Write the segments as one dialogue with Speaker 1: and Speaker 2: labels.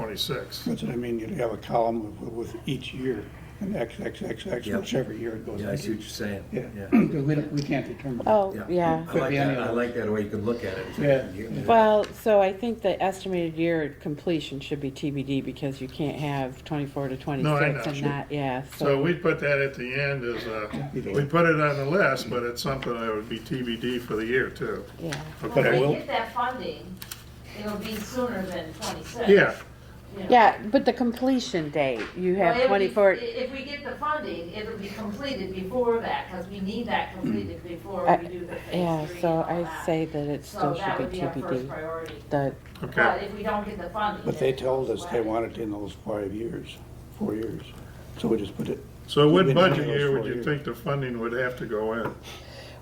Speaker 1: twenty-six.
Speaker 2: That's what I mean, you have a column with, with each year, and X, X, X, X,
Speaker 3: Yep.
Speaker 2: whichever year it goes.
Speaker 3: Yeah, I see what you're saying.
Speaker 2: Yeah,
Speaker 3: Yeah.
Speaker 2: because we don't, we can't determine.
Speaker 4: Oh, yeah.
Speaker 3: I like
Speaker 2: be any
Speaker 3: that, I
Speaker 2: of
Speaker 3: like that way you can look at it. It's
Speaker 2: Yeah.
Speaker 3: like-
Speaker 4: Well, so I think the estimated year completion should be TBD because you can't have twenty-four to twenty-six
Speaker 1: know.
Speaker 4: and not, yeah,
Speaker 1: So
Speaker 4: so.
Speaker 1: we put that at the end as a, we put it on the list, but it's something that would be TBD for the year too.
Speaker 4: Yeah,
Speaker 5: Well, If
Speaker 1: Okay,
Speaker 5: they get that funding, it'll be sooner than twenty-six.
Speaker 1: yeah,
Speaker 5: you know.
Speaker 4: yeah, but the completion date, you
Speaker 5: Well,
Speaker 4: have
Speaker 5: it'll be-
Speaker 4: twenty-four,
Speaker 5: i- If we get the funding, it'll be completed before that, because we need that completed before
Speaker 4: I-
Speaker 5: we do the phase three
Speaker 4: yeah,
Speaker 5: and
Speaker 4: so
Speaker 5: all
Speaker 4: I
Speaker 5: that.
Speaker 4: say that it
Speaker 5: So
Speaker 4: still
Speaker 5: that
Speaker 4: should
Speaker 5: would
Speaker 4: be
Speaker 5: be our first
Speaker 4: TBD.
Speaker 5: priority.
Speaker 4: The,
Speaker 5: But
Speaker 1: okay.
Speaker 5: if we don't get the funding.
Speaker 2: But they
Speaker 5: it-
Speaker 2: told us they
Speaker 5: well,
Speaker 2: wanted it in those five years, four years, so we just put it,
Speaker 1: So what
Speaker 2: We've been
Speaker 1: budget
Speaker 2: doing
Speaker 1: year
Speaker 2: those
Speaker 1: would
Speaker 2: for
Speaker 1: you
Speaker 2: years.
Speaker 1: think the funding would have to go in?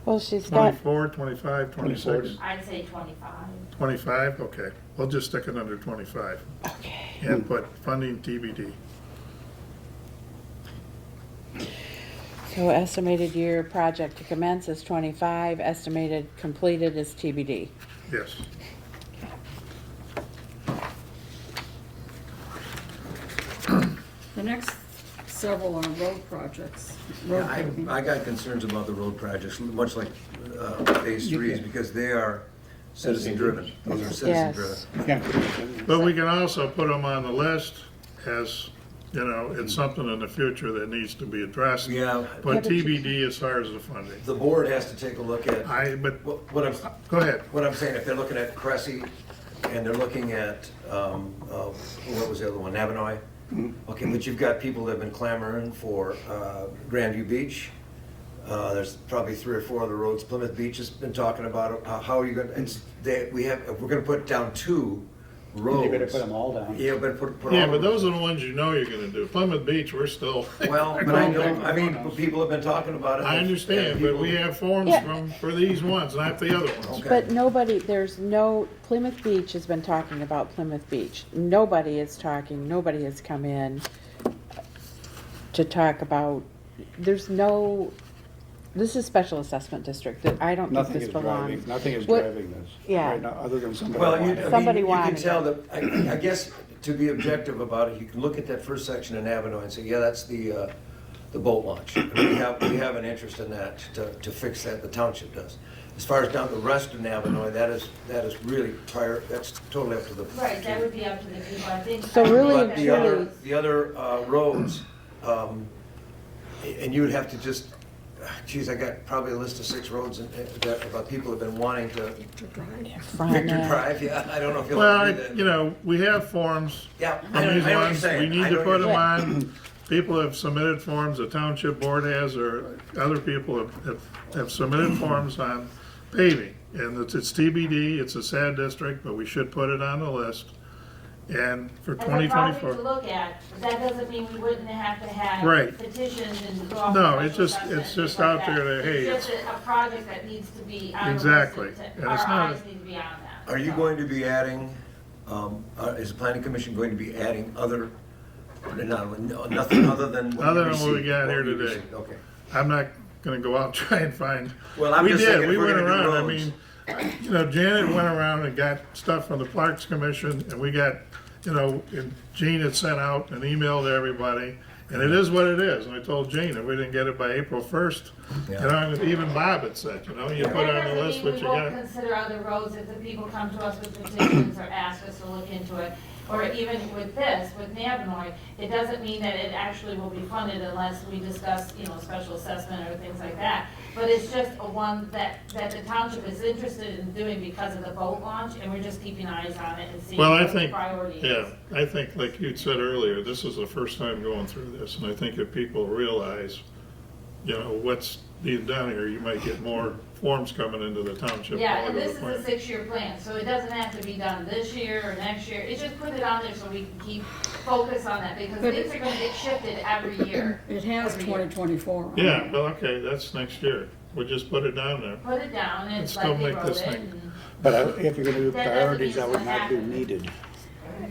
Speaker 4: well, she's got,
Speaker 1: Twenty-four, twenty-five, twenty-six,
Speaker 2: 24.
Speaker 5: I'd say twenty-five.
Speaker 1: twenty-five? Okay, we'll just stick it under twenty-five
Speaker 4: okay,
Speaker 1: and put funding TBD.
Speaker 4: so estimated year project to commence is twenty-five, estimated completed is TBD.
Speaker 1: Yes.
Speaker 6: The next several are road projects. road
Speaker 3: Yeah, I,
Speaker 6: paving.
Speaker 3: I got concerns about the road projects, much like uh, phase threes, because they are citizen driven. Those are citizen driven.
Speaker 4: Yes,
Speaker 2: you can't put it in.
Speaker 1: But we can also put them on the list as, you know, it's something in the future that needs to be addressed.
Speaker 3: Yeah.
Speaker 1: But TBD as far as the funding.
Speaker 3: The board has to take a look at,
Speaker 1: I, but,
Speaker 3: what what I'm,
Speaker 1: go ahead.
Speaker 3: What I'm saying, if they're looking at Cressy and they're looking at, um, uh, what was the other one, Navinoy?
Speaker 2: Mm-hmm.
Speaker 3: Okay, but you've got people that have been clamoring for, uh, Grandview Beach. Uh, there's probably three or four other roads. Plymouth Beach has been talking about it. How- How are you gonna, it's, they, we have, we're gonna put down two roads.
Speaker 2: You better put them all down.
Speaker 3: Yeah, but put, put all.
Speaker 1: Yeah, but those are the ones you know you're gonna do. Plymouth Beach, we're still,
Speaker 3: Well, but I don't, I mean, people have been talking about it.
Speaker 1: I understand, but we have forms
Speaker 4: Yeah.
Speaker 1: from, for these ones, not the other ones.
Speaker 3: Okay.
Speaker 4: But nobody, there's no, Plymouth Beach has been talking about Plymouth Beach. Nobody is talking, nobody has come in to talk about, there's no, this is special assessment district, that I don't think
Speaker 2: Nothing
Speaker 4: this
Speaker 2: is driving,
Speaker 4: belongs.
Speaker 2: nothing is
Speaker 4: What-
Speaker 2: driving this.
Speaker 4: Yeah.
Speaker 2: right now, Other than somebody
Speaker 3: Well, you,
Speaker 2: wanted it.
Speaker 3: I mean,
Speaker 4: Somebody
Speaker 3: you can
Speaker 4: wanted it.
Speaker 3: tell that, I, I guess, to be objective about it, you can look at that first section in Avinoy and say, yeah, that's the, uh, the boat launch. And We have, we have an interest in that, to, to fix that, the township does. As far as down the rest of Navinoy, that is, that is really prior, that's totally up to the.
Speaker 5: Right, that would be up to the people, I think.
Speaker 4: So really and
Speaker 3: But the other,
Speaker 4: truly-
Speaker 3: the other uh, roads, um, and you would have to just, geez, I got probably a list of six roads and, and that, about people have been wanting to,
Speaker 4: From
Speaker 3: Victor
Speaker 4: it.
Speaker 3: Drive, yeah, I don't know if you'll
Speaker 1: Well,
Speaker 3: ever do
Speaker 1: I-
Speaker 3: that.
Speaker 1: you know, we have forms
Speaker 3: Yeah, I
Speaker 1: from
Speaker 3: know, I know
Speaker 1: these
Speaker 3: what you're
Speaker 1: ones. We
Speaker 3: saying.
Speaker 1: need
Speaker 3: I
Speaker 1: to
Speaker 3: know
Speaker 1: put
Speaker 3: what
Speaker 1: them
Speaker 3: you're
Speaker 1: on. People have submitted forms, the township board has, or other people have- have, have submitted forms on paving. And it's- it's TBD, it's a sad district, but we should put it on the list. And for
Speaker 5: As a
Speaker 1: twenty
Speaker 5: project to
Speaker 1: twenty-four,
Speaker 5: look at, but that doesn't mean we wouldn't have to have
Speaker 1: Right.
Speaker 5: petitions and. go off
Speaker 1: No,
Speaker 5: special
Speaker 1: it's just-
Speaker 5: assessment
Speaker 1: it's just
Speaker 5: and
Speaker 1: out
Speaker 5: stuff like
Speaker 1: there
Speaker 5: that.
Speaker 1: that, hey,
Speaker 5: It's just a a project that needs to be on the list.
Speaker 1: Exactly.
Speaker 5: to-
Speaker 1: And
Speaker 5: Our
Speaker 1: it's not-
Speaker 5: eyes need to be on that.
Speaker 3: Are you
Speaker 5: so.
Speaker 3: going to be adding, um, uh, is the planning commission going to be adding other, no, no, nothing other than what you
Speaker 1: Other than what we
Speaker 3: received,
Speaker 1: got here
Speaker 3: you
Speaker 1: today.
Speaker 3: received, Okay.
Speaker 1: I'm not gonna go out and try and find.
Speaker 3: Well, I'm
Speaker 1: We
Speaker 3: just
Speaker 1: did,
Speaker 3: thinking if
Speaker 1: we
Speaker 3: we're
Speaker 1: went
Speaker 3: gonna do
Speaker 1: around. I
Speaker 3: roads-
Speaker 1: mean, You know, Janet went around and got stuff from the Parks Commission, and we got, you know, and Gene had sent out an email to everybody, and it is what it is, and I told Gene, if we didn't get it by April first, you
Speaker 3: Yeah.
Speaker 1: know, and even Bob had said, you know, you
Speaker 5: That
Speaker 1: put on the
Speaker 5: doesn't
Speaker 1: list
Speaker 5: mean
Speaker 1: what you
Speaker 5: We won't
Speaker 1: got.
Speaker 5: consider other roads if the people come to us with petitions or ask us to look into it. Or even with this, with Navinoy, it doesn't mean that it actually will be funded unless we discuss, you know, special assessment or things like that. But it's just a one that, that the township is interested in doing because of the boat launch, and we're just keeping eyes on it and seeing
Speaker 1: Well, I
Speaker 5: what the
Speaker 1: think,
Speaker 5: priority is.
Speaker 1: yeah, I think, like you'd said earlier, this is the first time going through this, and I think if people realize, you know, what's being done here, you might get more forms coming into the township. all
Speaker 5: Yeah, and
Speaker 1: over the
Speaker 5: this is a
Speaker 1: place.
Speaker 5: six-year plan, so it doesn't have to be done this year or next year, it's just put it on there so we can keep focus on that, because
Speaker 6: But
Speaker 5: things
Speaker 6: it-
Speaker 5: are gonna get shifted every year.
Speaker 6: It has
Speaker 5: Every year.
Speaker 6: 2024 on it.
Speaker 1: Yeah, well, okay, that's next year. We'll just put it down there.
Speaker 5: Put it down, and
Speaker 1: Let's
Speaker 5: it's
Speaker 1: go
Speaker 5: like they
Speaker 1: make
Speaker 5: wrote
Speaker 1: this
Speaker 5: it,
Speaker 1: thing.
Speaker 5: and-
Speaker 2: But I- if you're gonna do
Speaker 5: That doesn't mean
Speaker 2: priorities, I would
Speaker 5: it's
Speaker 2: not
Speaker 5: gonna
Speaker 2: do
Speaker 5: happen.
Speaker 2: needed,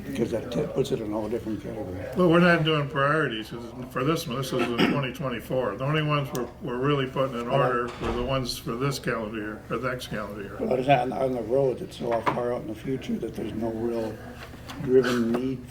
Speaker 2: because that t- puts it in a whole different category.
Speaker 1: Well, we're not doing priorities 'cause for this one. This is in 2024. The only ones we're, we're really putting in order were the ones for this calendar year, or next calendar year.
Speaker 2: But it's on, on the roads, it's so far out in the future that there's no real driven need